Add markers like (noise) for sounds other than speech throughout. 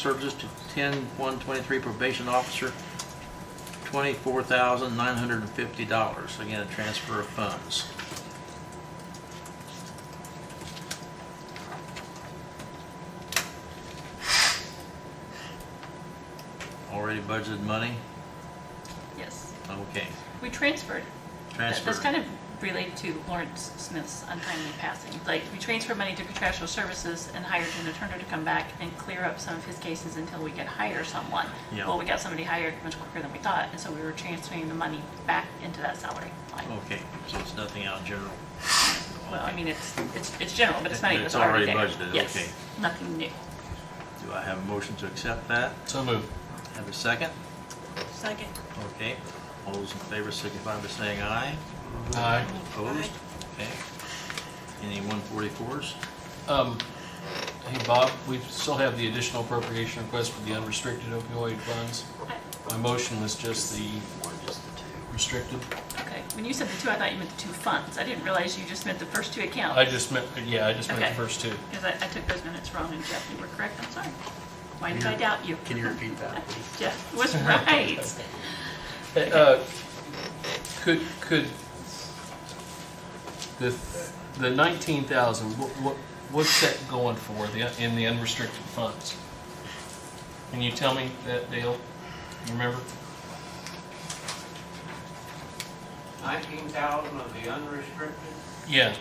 services to ten one twenty-three probation officer, twenty-four thousand nine hundred and fifty dollars. Again, a transfer of funds. Already budgeted money? Yes, Okay, we transferred. That- transfer. That's kind of related to Lawrence Smith's untimely passing. Like, we transferred money to contractual services and hired an attorney to come back and clear up some of his cases until we could hire someone. Yeah. Well, we got somebody hired much quicker than we thought, and so we were transferring the money back into that salary line. Okay, so it's nothing out of general. Well, I mean, it's, it's, it's general, but it's money It- that's it's already already there. budgeted, Yes, okay. nothing new. Do I have a motion to accept that? So moved. Have a second? Second. Okay, all those in favor signify by saying aye. Aye. Opposed? Okay. Any 144s? Um, hey, Bob, we still have the additional appropriation request for the unrestricted opioid funds. My motion was just the restricted. Okay, when you said the two, I thought you meant the two funds. I didn't realize you just meant the first two accounts. I just meant, yeah, I just meant the Okay. first two. Because I, I took those minutes wrong, and Jeff, you were correct, I'm sorry. Why did I doubt you? Can you repeat that, please? (laughs) Jeff was right. Uh, Could, could, the, the 19,000, what, what, what's that going for the- in the unrestricted funds? Can you tell me that, Dale? You remember? 19,000 of the unrestricted, Yeah.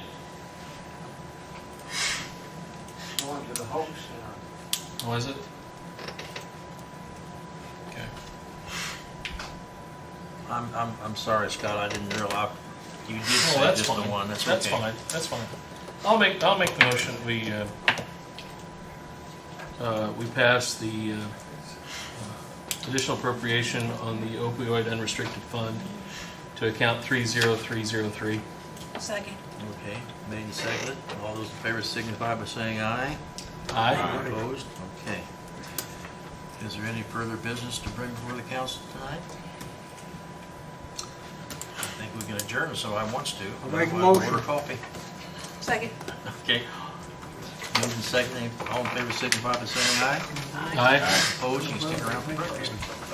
going to the Hope Center. Was it? Okay. I'm, I'm, I'm sorry, Scott, I didn't realize, you did Oh, say that's just the one, fine. that's okay. That's fine, that's fine. I'll make, I'll make the motion that we, uh, uh, we pass the uh, uh, additional appropriation on the opioid unrestricted fund to account 30303. Second. Okay, made and seconded, all those in favor signify by saying aye. Aye. Opposed? Okay. Is there any further business to bring before the council tonight? I think we can adjourn, so I wants to. I'll make a Otherwise, motion. Order coffee. Second. Okay. Moved and seconded, all in favor signify by saying aye. Aye. Opposed, you can stick around for breakfast.